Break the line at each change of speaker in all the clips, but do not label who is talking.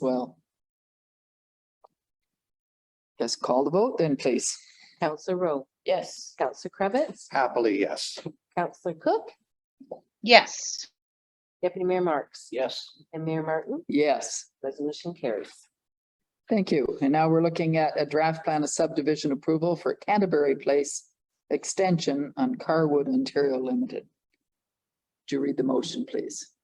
well. Yes, call the vote then, please.
Counselor Rowe,
Yes.
Counselor Cravitz,
Happily, yes.
Counselor Cook,
Yes.
Deputy Mayor Marks,
Yes.
and Mayor Martin,
Yes,
resolution carries.
thank you. And now we're looking at a draft plan of subdivision approval for Canterbury Place extension on Carwood Ontario Limited. Do you read the motion, please?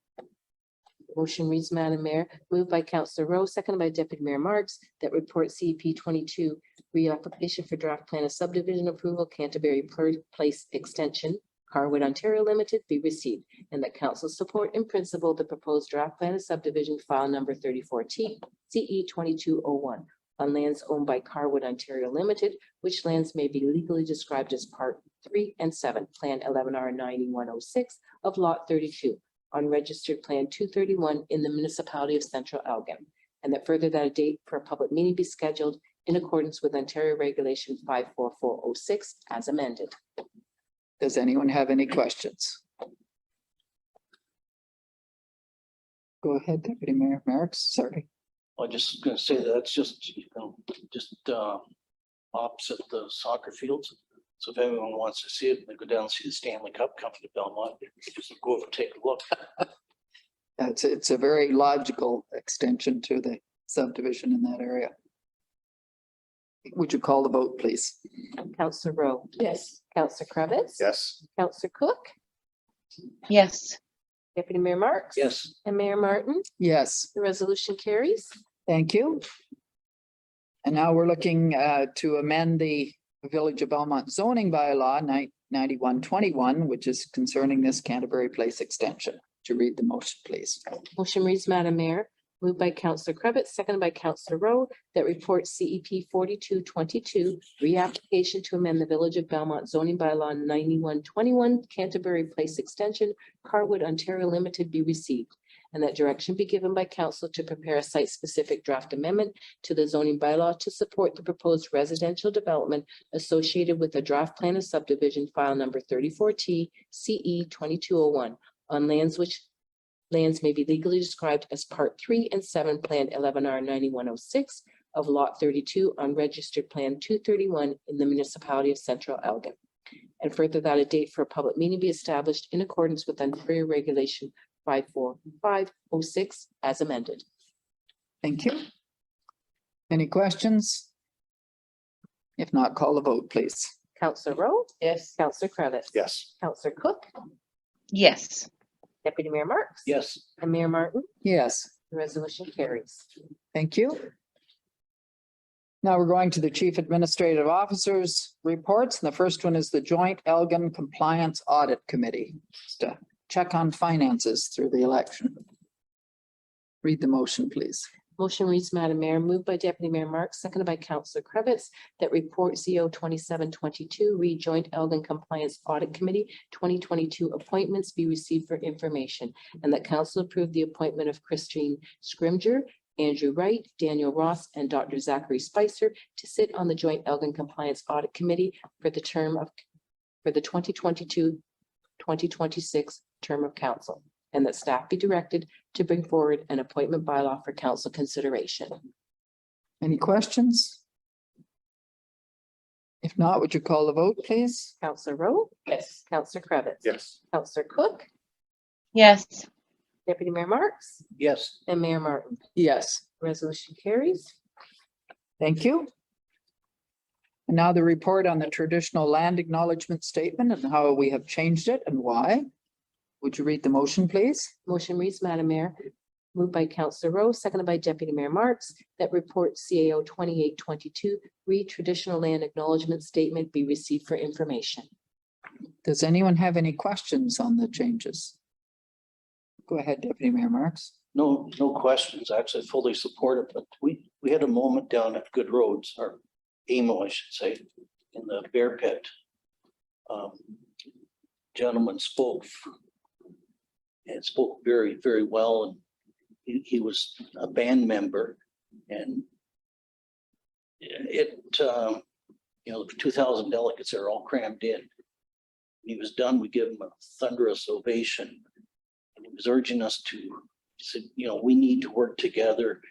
Motion reads, Madam Mayor, moved by Counselor Rowe, seconded by Deputy Mayor Marks, that report CP twenty-two, reapplication for draft plan of subdivision approval Canterbury Pla- Place Extension, Carwood, Ontario Limited, be received, and that council support in principle the proposed draft plan of subdivision file number thirty-four T, CE twenty-two oh one, on lands owned by Carwood, Ontario Limited, which lands may be legally described as part three and seven, Plan eleven R ninety-one oh six of lot thirty-two, on registered plan two thirty-one in the municipality of Central Elgin. And that further that a date for a public meeting be scheduled in accordance with Ontario Regulation five four four oh six as amended.
Does anyone have any questions? Go ahead, Deputy Mayor Marks, sorry.
I just gonna say that that's just, you know, just uh opposite the soccer fields. So if anyone wants to see it, they go down and see the Stanley Cup come to Belmont, just go over, and take a look.
It's, it's a very logical extension to the subdivision in that area. Would you call the vote, please?
Counselor Rowe,
Yes.
Counselor Cravitz.
Yes.
Counselor Cook,
Yes.
Deputy Mayor Marks.
Yes,
And Mayor Martin,
Yes.
the resolution carries.
Thank you. And now we're looking uh, to amend the Village of Belmont zoning bylaw nine ninety-one twenty-one, which is concerning this Canterbury Place extension. To read the motion, please.
Motion reads, Madam Mayor, moved by Counselor Crabbit, seconded by Counselor Rowe, that report CEP forty-two twenty-two, reapplication to amend the Village of Belmont zoning bylaw ninety-one twenty-one Canterbury Place Extension, Carwood, Ontario Limited be received, and that direction be given by council to prepare a site-specific draft amendment to the zoning bylaw to support the proposed residential development associated with the draft plan of subdivision file number thirty-four T CE twenty-two oh one on lands which lands may be legally described as Part Three and Seven, Plan eleven R ninety-one oh six of Lot thirty-two on registered Plan two thirty-one in the municipality of Central Elgin. And further that a date for a public meeting be established in accordance with Ontario Regulation five four five oh six as amended.
Thank you. Any questions? If not, call the vote, please.
Counselor Rowe,
Yes.
Counselor Cravitz.
Yes.
Counselor Cook,
Yes.
Deputy Mayor Marks.
yes.
And Mayor Martin,
Yes.
the resolution carries.
Thank you. Now we're going to the Chief Administrative Officer's reports. And the first one is the Joint Elgin Compliance Audit Committee. Just to check on finances through the election. Read the motion, please.
Motion reads, Madam Mayor, moved by Deputy Mayor Marks, seconded by Councillor Cravitz, that report CO twenty-seven twenty-two, rejoint Elgin Compliance Audit Committee, twenty twenty-two appointments be received for information, and that council approve the appointment of Christine Scrimger, Andrew Wright, Daniel Ross, and Dr. Zachary Spicer to sit on the joint Elgin Compliance Audit Committee for the term of, for the 2022-2026 term of council, and that staff be directed to bring forward an appointment bylaw for council consideration.
Any questions? If not, would you call the vote, please?
Counselor Rowe,
Yes.
Counselor Cravitz.
Yes.
Counselor Cook,
Yes.
Deputy Mayor Marks,
Yes,
and Mayor Martin.
Yes.
Resolution carries.
Thank you. And Now the report on the traditional land acknowledgement statement and how we have changed it and why. Would you read the motion, please?
Motion reads, Madam Mayor, moved by Counselor Rowe, seconded by Deputy Mayor Marks, that report CAO twenty-eight twenty-two, read traditional land acknowledgement statement be received for information.
Does anyone have any questions on the changes? Go ahead, Deputy Mayor Marks.
no, no questions. I Actually fully support it, but we, we had a moment down at Good Roads or Amo, I should say, in the bear pit. Um, Gentleman spoke and spoke very, very well and he, he was a band member and it, um, you know, the two thousand delegates are all crammed in. When He was done, we give him a thunderous ovation. And he was urging us to said, you know, we need to work together